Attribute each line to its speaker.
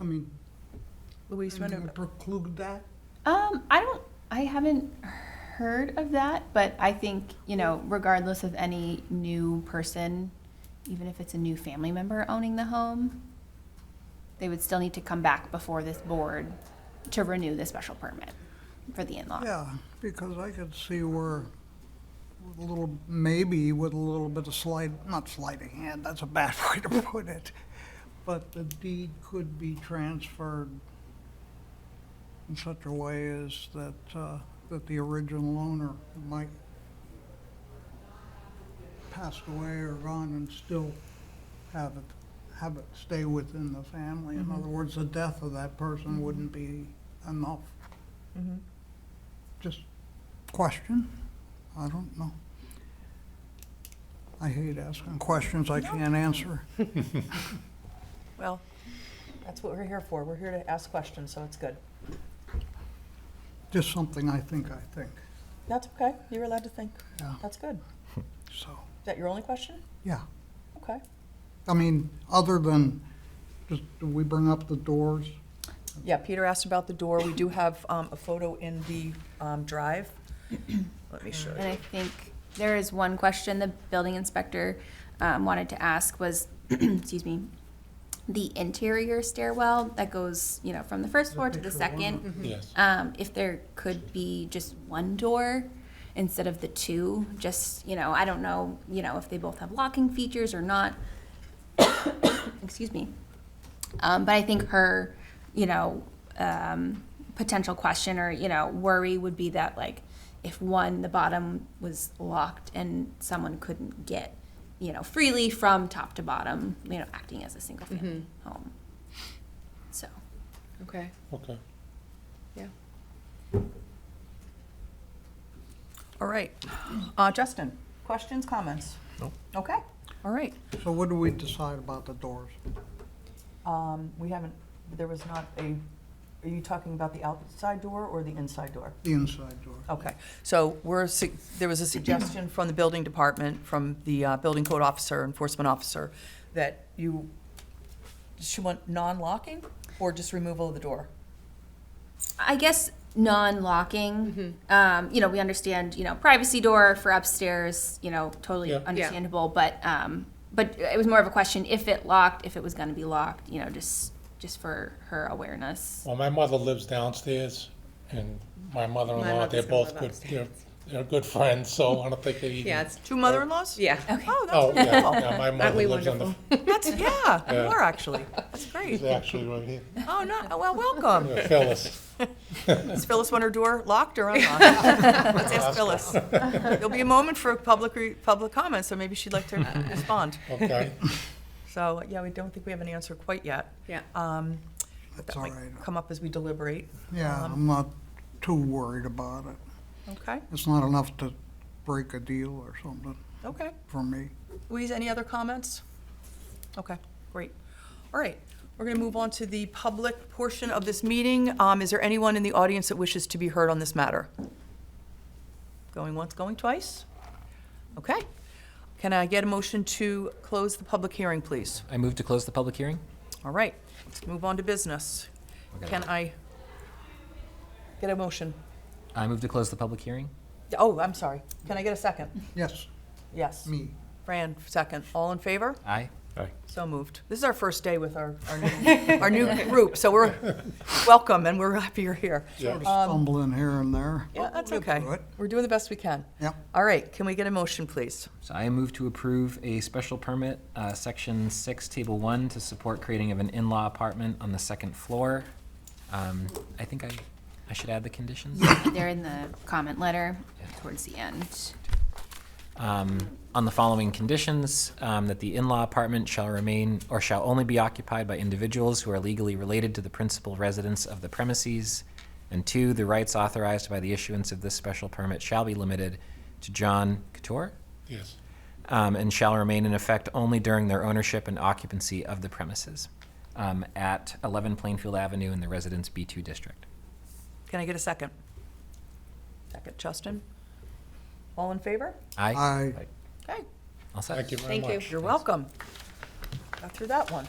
Speaker 1: I mean,
Speaker 2: Louise,
Speaker 1: anything to
Speaker 2: whenever.
Speaker 1: preclude that?
Speaker 3: Um, I don't, I haven't heard of that, but I think, you know, regardless of any new person, even if it's a new family member owning the home, they would still need to come back before this board to renew the special permit for the in-law.
Speaker 1: Yeah, because I could see where with a little, maybe with a little bit of slide, not sleight of hand, that's a bad way to put it. But the deed could be transferred in such a way as that, uh, that the original owner might passed away or gone and still have it, have it stay within the family. In other words, the death of that person wouldn't be enough. Just question? I don't know. I hate asking questions I can't answer.
Speaker 2: Well, that's what we're here for. We're here to ask questions, so it's good.
Speaker 1: Just something I think I think,
Speaker 2: That's okay. You're allowed to think.
Speaker 1: Yeah.
Speaker 2: That's good.
Speaker 1: so,
Speaker 2: Is that your only question?
Speaker 1: yeah.
Speaker 2: Okay.
Speaker 1: I mean, other than, just, do we bring up the doors?
Speaker 2: Yeah, Peter asked about the door. We do have um, a photo in the um, drive. Let me show
Speaker 3: And
Speaker 2: you.
Speaker 3: I think there is one question the building inspector um, wanted to ask was, excuse me, the interior stairwell that goes, you know, from the first floor to the
Speaker 1: Picture one.
Speaker 3: second.
Speaker 4: Yes.
Speaker 3: Um, if there could be just one door instead of the two, just, you know, I don't know, you know, if they both have locking features or not. Excuse me. Um, but I think her, you know, um, potential question or, you know, worry would be that like if one, the bottom was locked and someone couldn't get, you know, freely from top to bottom, you know, acting as a single family home. So.
Speaker 5: Okay,
Speaker 4: Okay.
Speaker 5: yeah.
Speaker 2: All right. Uh, Justin, questions, comments?
Speaker 4: No.
Speaker 2: Okay. All right.
Speaker 1: So what do we decide about the doors?
Speaker 2: Um, We haven't, there was not a, are you talking about the outside door or the inside door?
Speaker 1: The inside door?
Speaker 2: Okay, so we're, su- there was a suggestion from the building department, from the uh, building code officer, enforcement officer, that you, she want non-locking or just removal of the door?
Speaker 3: I guess non-locking. Um, you know, we understand. You know, privacy door for upstairs. You know, totally
Speaker 4: Yeah. Yeah.
Speaker 3: understandable. But um, but it was more of a question if it locked, if it was going to be locked. You know, just just for her awareness.
Speaker 4: Well, my mother lives downstairs, and my
Speaker 5: My
Speaker 4: mother-in-law,
Speaker 5: mother's
Speaker 4: they're
Speaker 5: gonna
Speaker 4: both
Speaker 5: live
Speaker 4: good, they're,
Speaker 5: upstairs.
Speaker 4: they're good friends, so I don't think they even.
Speaker 5: Yeah, it's,
Speaker 2: Two mother-in-laws?
Speaker 5: yeah.
Speaker 2: Oh,
Speaker 4: Oh,
Speaker 2: that's
Speaker 4: yeah,
Speaker 2: wonderful.
Speaker 4: yeah, my
Speaker 5: Aren't we
Speaker 4: mother lives on the,
Speaker 5: wonderful?
Speaker 2: That's, yeah, you
Speaker 4: Yeah.
Speaker 2: are actually. That's great.
Speaker 4: she's actually right here,
Speaker 2: Oh, no, oh, well, welcome.
Speaker 4: Yeah, Phyllis.
Speaker 2: Is Phyllis want her door locked or unlocked? Let's ask Phyllis. There'll be a moment for public, re- public comment, so maybe she'd like to respond.
Speaker 4: Okay,
Speaker 2: So, yeah, we don't think we have an answer quite yet.
Speaker 5: Yeah.
Speaker 2: Um,
Speaker 1: That's
Speaker 2: That
Speaker 1: all
Speaker 2: might
Speaker 1: right.
Speaker 2: come up as we deliberate.
Speaker 1: Yeah,
Speaker 2: Um,
Speaker 1: I'm not too worried about it.
Speaker 2: Okay,
Speaker 1: It's not enough to break a deal or something
Speaker 2: okay.
Speaker 1: for me.
Speaker 2: Louise, any other comments? Okay, great. All right, we're going to move on to the public portion of this meeting. Um, Is there anyone in the audience that wishes to be heard on this matter? Going once, going twice? Okay. Can I get a motion to close the public hearing, please?
Speaker 6: I move to close the public hearing.
Speaker 2: All right, let's move on to business. Can I get a motion?
Speaker 6: I move to close the public hearing.
Speaker 2: Oh, I'm sorry. Can I get a second?
Speaker 1: Yes,
Speaker 2: Yes.
Speaker 1: me.
Speaker 2: Fran, second. All in favor?
Speaker 6: Aye.
Speaker 2: So moved. This is our first day with our, our new, our new group, so we're, welcome, and we're happy you're here.
Speaker 4: yeah.
Speaker 1: Stumbling here and there.
Speaker 2: Yeah, that's
Speaker 1: We'll
Speaker 2: okay.
Speaker 1: do it.
Speaker 2: We're doing the best we can.
Speaker 1: Yep.
Speaker 2: All right, can we get a motion, please?
Speaker 6: So I move to approve a special permit, uh, section six, table one, to support creating of an in-law apartment on the second floor. Um, I think I, I should add the conditions.
Speaker 3: They're in the comment letter towards the end.
Speaker 6: um, on the following conditions, um, that the in-law apartment shall remain or shall only be occupied by individuals who are legally related to the principal residence of the premises. And two, the rights authorized by the issuance of this special permit shall be limited to John Couture
Speaker 4: yes,
Speaker 6: um, and shall remain in effect only during their ownership and occupancy of the premises um, at 11 Plainfield Avenue in the Residence B2 District.
Speaker 2: Can I get a second? Second, Justin? All in favor?
Speaker 6: Aye.
Speaker 1: Aye.
Speaker 2: Okay,
Speaker 6: All set.
Speaker 4: thank you very
Speaker 5: Thank you.
Speaker 4: much.
Speaker 2: you're welcome. Got through that one.